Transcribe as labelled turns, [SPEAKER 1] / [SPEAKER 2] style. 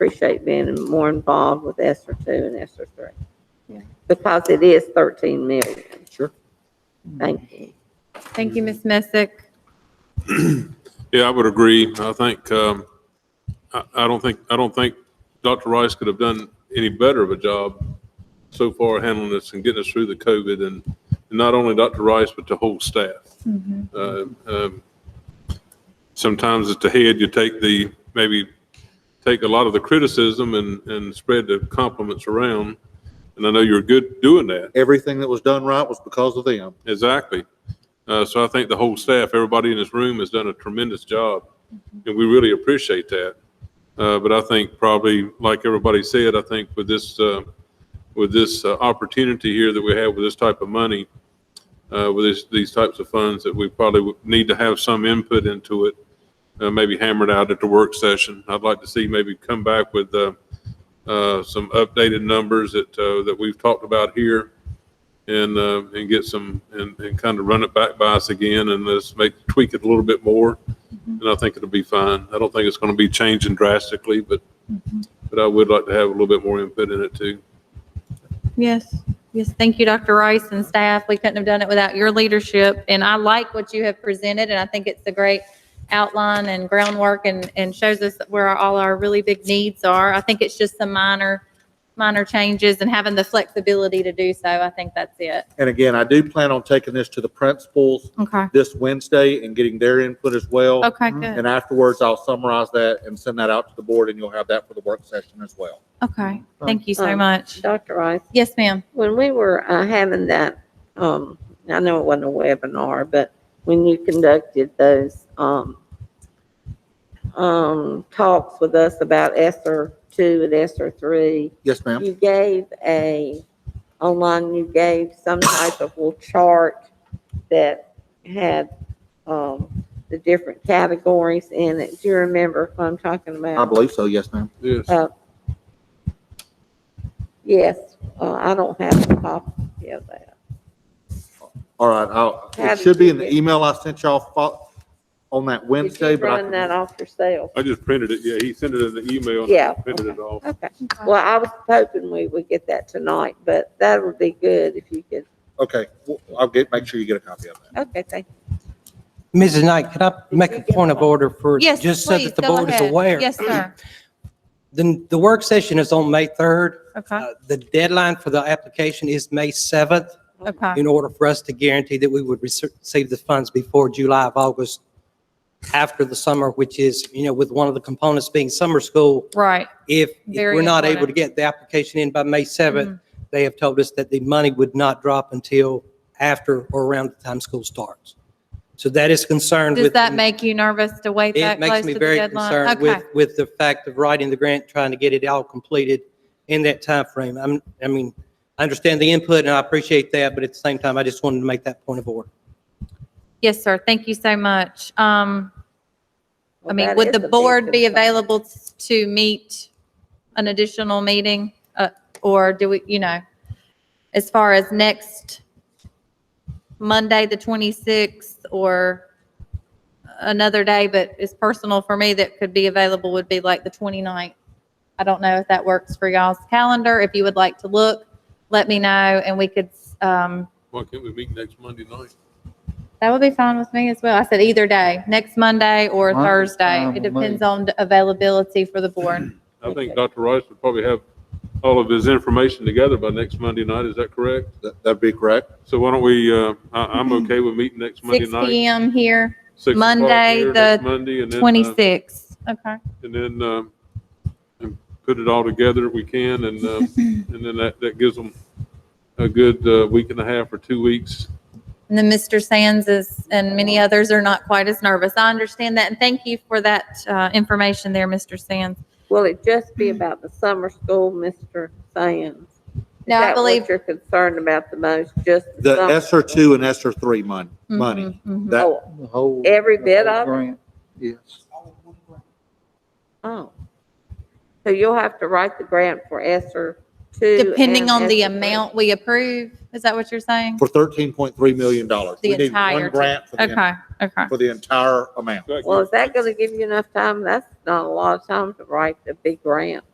[SPEAKER 1] appreciate being more involved with Esther two and Esther
[SPEAKER 2] Yeah.
[SPEAKER 1] three. Because it is thirteen million.
[SPEAKER 3] Sure.
[SPEAKER 1] Thank you.
[SPEAKER 2] Thank you, Ms. Messick.
[SPEAKER 4] Yeah, I would agree. I think, um, I, I don't think, I don't think Dr. Rice could have done any better of a job so far handling this and getting us through the COVID and and not only Dr. Rice, but the whole staff. Uh, um, Sometimes at the head, you take the, maybe take a lot of the criticism and, and spread the compliments around. And I know you're good doing that.
[SPEAKER 3] Everything that was done right was because of them.
[SPEAKER 4] Exactly. Uh, so I think the whole staff, everybody in this room has done a tremendous job and we really appreciate that. Uh, but I think probably, like everybody said, I think with this, uh, with this uh, opportunity here that we have with this type of money, uh, with this, these types of funds, that we probably would need to have some input into it, uh, maybe hammered out at the work session. I'd like to see maybe come back with, uh, uh, some updated numbers that, uh, that we've talked about here and, uh, and get some, and, and kind of run it back by us again and let's make, tweak it a little bit more.
[SPEAKER 1] Mm-hmm.
[SPEAKER 4] And I think it'll be fine. I don't think it's going to be changing drastically, but,
[SPEAKER 1] Mm-hmm.
[SPEAKER 4] but I would like to have a little bit more input in it too.
[SPEAKER 2] Yes, yes, thank you, Dr. Rice and staff. We couldn't have done it without your leadership. And I like what you have presented, and I think it's a great outline and groundwork and, and shows us where our- all our really big needs are. I think it's just some minor, minor changes and having the flexibility to do so. I think that's it.
[SPEAKER 3] And again, I do plan on taking this to the principals
[SPEAKER 2] Okay,
[SPEAKER 3] this Wednesday and getting their input as well.
[SPEAKER 2] okay, good.
[SPEAKER 3] And afterwards, I'll summarize that and send that out to the board and you'll have that for the work session as well.
[SPEAKER 2] Okay, thank you
[SPEAKER 5] Uh,
[SPEAKER 2] so
[SPEAKER 1] Um,
[SPEAKER 2] much.
[SPEAKER 1] Dr. Rice,
[SPEAKER 2] Yes, ma'am.
[SPEAKER 1] when we were uh, having that, um, I know it wasn't a webinar, but when you conducted those, um, um, talks with us about Esther two and Esther three,
[SPEAKER 3] Yes, ma'am.
[SPEAKER 1] you gave a, online, you gave some type of little chart that had, um, the different categories in it. Do you remember what I'm talking
[SPEAKER 3] I
[SPEAKER 1] about?
[SPEAKER 3] believe so. Yes, ma'am.
[SPEAKER 4] Yes.
[SPEAKER 1] Uh, Yes, uh, I don't have a copy of that.
[SPEAKER 3] All right. I'll,
[SPEAKER 1] How
[SPEAKER 3] it
[SPEAKER 1] did
[SPEAKER 3] should be
[SPEAKER 1] you
[SPEAKER 3] in the
[SPEAKER 1] get-
[SPEAKER 3] email I sent y'all fo- on that
[SPEAKER 1] Did
[SPEAKER 3] Wednesday,
[SPEAKER 1] you
[SPEAKER 3] but I
[SPEAKER 1] run
[SPEAKER 3] can-
[SPEAKER 1] that off yourself?
[SPEAKER 4] I just printed it. Yeah, he sent it in the email. and I
[SPEAKER 1] Yeah,
[SPEAKER 4] Printed it off.
[SPEAKER 1] Okay, well, I was hoping we would get that tonight, but that would be good if you could.
[SPEAKER 3] okay, well, I'll get, make sure you get a copy of that.
[SPEAKER 1] Okay, thank
[SPEAKER 5] Mrs. Knight, can I make a point of order for?
[SPEAKER 2] Yes,
[SPEAKER 5] Just so
[SPEAKER 2] please,
[SPEAKER 5] that the
[SPEAKER 2] go
[SPEAKER 5] board is
[SPEAKER 2] ahead.
[SPEAKER 5] aware. Uh,
[SPEAKER 2] Yes, sir.
[SPEAKER 5] Then the work session is on May 3rd.
[SPEAKER 2] Okay,
[SPEAKER 5] Uh, The deadline for the application is May 7th
[SPEAKER 2] okay,
[SPEAKER 5] in order for us to guarantee that we would rece- receive the funds before July of August after the summer, which is, you know, with one of the components being summer school.
[SPEAKER 2] right.
[SPEAKER 5] If if
[SPEAKER 2] Very
[SPEAKER 5] we're not able to
[SPEAKER 2] important. Mm-hmm.
[SPEAKER 5] get the application in by May 7th, they have told us that the money would not drop until after or around the time school starts. So that is concerned with.
[SPEAKER 2] Does that
[SPEAKER 5] the-
[SPEAKER 2] make you nervous to wait that
[SPEAKER 5] It
[SPEAKER 2] close
[SPEAKER 5] makes
[SPEAKER 2] to
[SPEAKER 5] me
[SPEAKER 2] the
[SPEAKER 5] very
[SPEAKER 2] deadline?
[SPEAKER 5] concerned
[SPEAKER 2] Okay,
[SPEAKER 5] with, with the fact of writing the grant, trying to get it all completed in that time frame. I'm, I mean, I understand the input and I appreciate that, but at the same time, I just wanted to make that point of order.
[SPEAKER 2] yes, sir, thank you so much. Um,
[SPEAKER 1] you.
[SPEAKER 2] I mean, would the board be available t- to meet an additional meeting? Uh, or do we, you know, as far as next Monday, the 26th, or another day, but it's personal for me that could be available would be like the 29th. I don't know if that works for y'all's calendar. If you would like to look, let me know and we could, um,
[SPEAKER 4] Why can't we meet next Monday night?
[SPEAKER 2] that would be fine with me as well. I said either day, next Monday or
[SPEAKER 3] Monday,
[SPEAKER 2] Thursday.
[SPEAKER 3] fine
[SPEAKER 2] It
[SPEAKER 3] with me.
[SPEAKER 2] depends on the availability for the board.
[SPEAKER 4] I think
[SPEAKER 1] Okay.
[SPEAKER 4] Dr. Rice would probably have all of his information together by next Monday night. Is that correct?
[SPEAKER 3] That- That'd be correct.
[SPEAKER 4] So why don't we, uh, I, I'm okay with meeting next Monday
[SPEAKER 2] Six
[SPEAKER 4] night.
[SPEAKER 2] PM here,
[SPEAKER 4] six o'clock
[SPEAKER 2] Monday, the
[SPEAKER 4] here, next Monday, and then, uh,
[SPEAKER 2] twenty-six. Okay.
[SPEAKER 4] and then, um, and put it all together if we can, and, um, and then that, that gives them a good, uh, week and a half or two weeks.
[SPEAKER 2] And then Mr. Sands is, and many others are not quite as nervous. I understand that. And thank you for that, uh, information there, Mr. Sands.
[SPEAKER 1] Will it just
[SPEAKER 2] Mm-hmm.
[SPEAKER 1] be about the summer school, Mr. Sands? Is
[SPEAKER 2] No, I
[SPEAKER 1] that what
[SPEAKER 2] believe-
[SPEAKER 1] You're concerned about the most, just.
[SPEAKER 3] The
[SPEAKER 1] summer
[SPEAKER 3] SR
[SPEAKER 1] school?
[SPEAKER 3] two and SR three money,
[SPEAKER 1] Mm-hmm.
[SPEAKER 3] money.
[SPEAKER 2] Mhm, mhm.
[SPEAKER 3] That,
[SPEAKER 1] Oh, Every bit of it?
[SPEAKER 3] yes.
[SPEAKER 1] Oh. So you'll have to write the grant for Esser two.
[SPEAKER 2] Depending
[SPEAKER 1] and
[SPEAKER 2] on the
[SPEAKER 1] ESSER three.
[SPEAKER 2] amount we approve, is that what you're saying?
[SPEAKER 3] For thirteen point three million dollars.
[SPEAKER 2] The
[SPEAKER 3] We need
[SPEAKER 2] entire
[SPEAKER 3] one
[SPEAKER 2] thing.
[SPEAKER 3] grant for the,
[SPEAKER 2] Okay, okay.
[SPEAKER 3] for the entire amount.
[SPEAKER 1] Well, is that gonna give you enough time? That's not a lot of time to write the big grant.